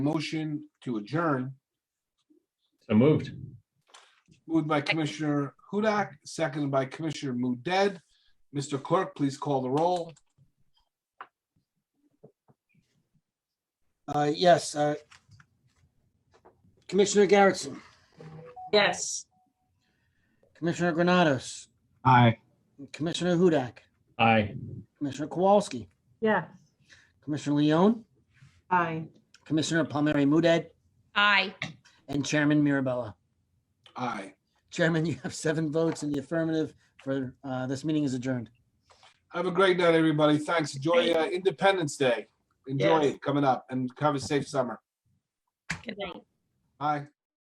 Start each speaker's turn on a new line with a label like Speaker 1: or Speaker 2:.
Speaker 1: motion to adjourn,
Speaker 2: So moved.
Speaker 1: moved by Commissioner Hudak, seconded by Commissioner Mudet. Mr. Clerk, please call the roll.
Speaker 3: Uh, yes, uh, Commissioner Garrettson,
Speaker 4: Yes.
Speaker 3: Commissioner Granados,
Speaker 5: Aye.
Speaker 3: Commissioner Hudak,
Speaker 2: Aye.
Speaker 3: Commissioner Kowalski,
Speaker 4: Yes.
Speaker 3: Commissioner Leone,
Speaker 4: Aye.
Speaker 3: Commissioner Palmieri Muedad,
Speaker 6: Aye.
Speaker 3: and Chairman Mirabella.
Speaker 1: Aye.
Speaker 3: Chairman, you have seven votes in the affirmative for, uh, this meeting is adjourned.
Speaker 1: Have a great night, everybody. Thanks. Enjoy uh, Independence Day. Enjoy
Speaker 4: Yes.
Speaker 1: it coming up and have a safe summer.
Speaker 6: Good night.
Speaker 1: Bye.